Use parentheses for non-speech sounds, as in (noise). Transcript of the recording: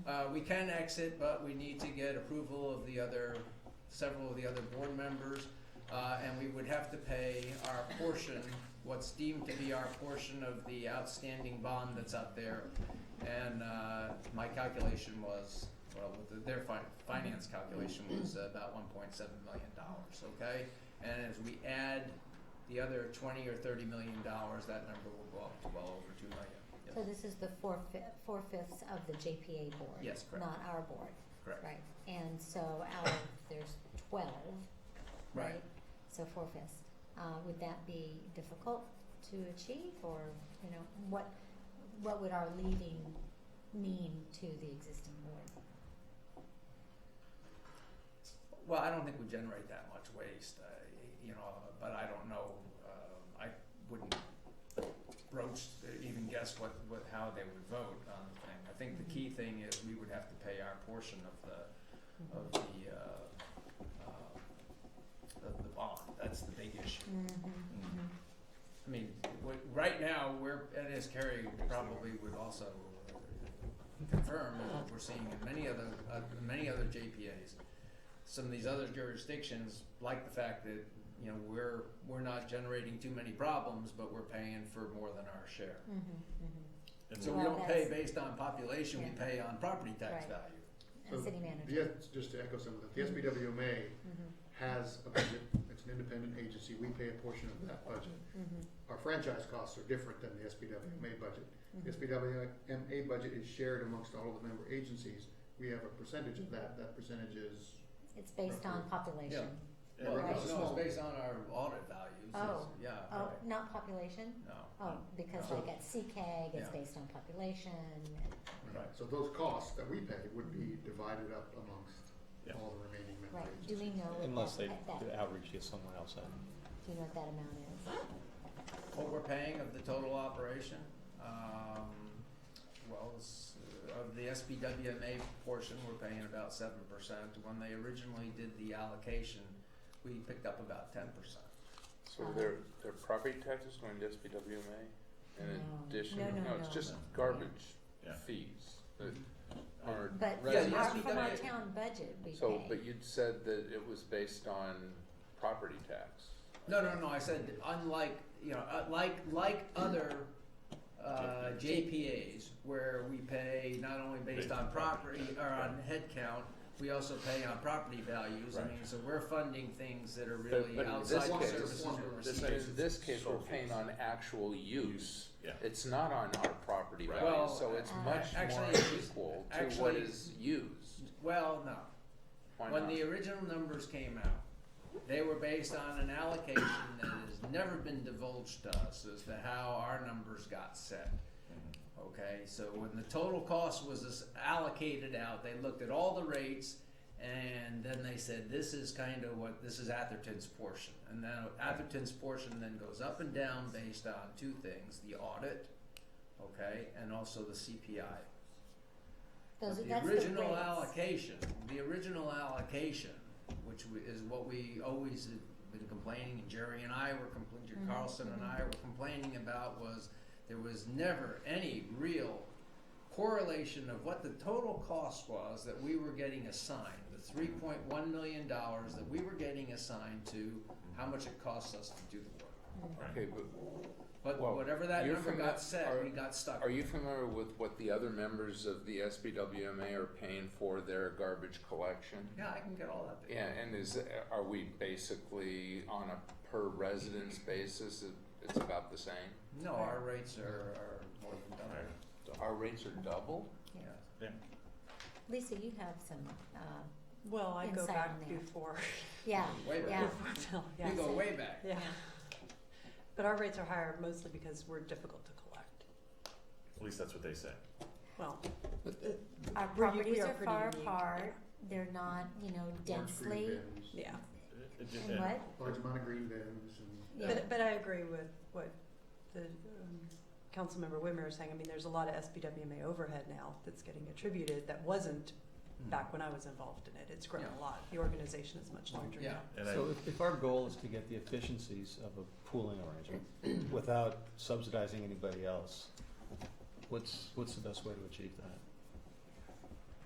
Uh, we can exit, but we need to get approval of the other, several of the other board members. Uh, and we would have to pay our portion, what's deemed to be our portion of the outstanding bond that's out there. And, uh, my calculation was, well, with the- their fin- finance calculation was about one point seven million dollars, okay? And as we add the other twenty or thirty million dollars, that number will go up to well over two million. Yes. So this is the four fifths, four fifths of the JPA board? Yes, correct. Not our board? Correct. Right, and so out of, there's twelve, Right. right? So four fifths. Uh, would that be difficult to achieve, or, you know, what, what would our leaving mean to the existing board? Well, I don't think we generate that much waste, uh, you know, but I don't know, uh, I wouldn't broach, even guess what, what, how they would vote on the thing. I think the key thing is we would have to pay our portion of the, of the, uh, uh, of the bond, that's the big issue. Mhm, mhm. I mean, w right now, we're, and as Kerry probably would also confirm, what we're seeing in many other, uh, many other JPAs, some of these other jurisdictions like the fact that, you know, we're, we're not generating too many problems, but we're paying for more than our share. Mhm, mhm. And So we Well, don't pay that's- based on population, we Yeah. pay on property tax Right. value. And So city the manager. Mm-hmm. S- Just to echo some of that, the SBWMA Mhm, has a budget, it's an independent agency, we pay a portion of that budget. mhm, Our franchise costs are different than the SBWMA budget. mhm. The SBWMA budget is shared amongst all of the member agencies, we have a percentage of that, that percentage is, It's based on population. Yeah, Well, right. no, It's no, small. it's based on our audit values, It's- Oh. yeah, Oh, right. not population? no. Oh, because So- like at CCAG, it's Yeah. based on population. Right. so those costs that we pay would be divided up amongst Yeah. all the remaining member Mm-hmm. Right, do agencies. we know Unless what they that, at that, do do outreach to someone else, then. you know what that amount is? what we're paying of the total operation, um, well, it's, uh, of the SBWMA portion, we're paying about seven percent. When they originally did the allocation, we picked up about ten percent. So their, their property tax is going to SBWMA? In No. addition, No, no, no, it's no. just garbage Yeah. fees that are, But Yeah, from the our, SBW from our town budget, we pay. so, but you'd said that it was based on property tax. No, no, no, I said unlike, you know, uh, like, like other, uh, JPAs, where we pay not only based Based on on property, property, or on head count, we also pay on property values, I Right. mean, so we're funding things that are But- really but in this outside the case- services we're This- receiving. In this case, we're Sold paying fees. on actual use. Yeah. It's not on our property Right. value, Well, so it's uh, much actually, more it's- equal to what actually- is used. Well, no, Why when not? the original numbers came out, they were based on an allocation that has never been divulged to us as to how our numbers got set. Okay, so when the total cost was as- allocated out, they looked at all the rates and then they said, this is kind of what, this is Atherton's portion. And then Atherton's portion then goes up and down based on two things, the audit, okay, and also the CPI. Those, But are- that's the the original rates. allocation, the original allocation, which we- is what we always have been complaining, and Jerry and I were complaining, Mhm, Carlson and I were complaining about was there was never any real correlation of what the total cost was that we were getting assigned, the three point one million dollars that we were getting assigned to, how much it costs us to do the work. Okay, but But Well, whatever that you're number fami- got set, are- we got stuck. Are you familiar with what the other members of the SBWMA are paying for their garbage collection? Yeah, I can get all that. Yeah, and is, are we basically on a per residence basis, it- it's about the same? No, our rates are, are more than double. Right. Our rates are double? Yeah. Yeah. Lisa, you have some, uh, Well, I go insight back on that. before, (laughs) yeah, Way yeah, back. Phil, yeah, (laughs) (laughs) You go way back. yeah. But our rates are higher mostly because we're difficult to collect. At least that's what they say. Well, our We're u- properties we are are pretty far unique. apart, they're not, you know, Large green densely, bins, yeah. It- it- and and- what, Large amount of green bins and. yeah, But, but I agree with what the um, Councilmember Whitmer is saying. I mean, there's a lot of SBWMA overhead now that's getting attributed that wasn't back when I was involved in it. It's grown Mm. Yeah. a lot. The organization is much larger Yeah. now. And I, So if, if our goal is to get the efficiencies of a pooling arrangement without subsidizing anybody else, what's, what's the best way to achieve that?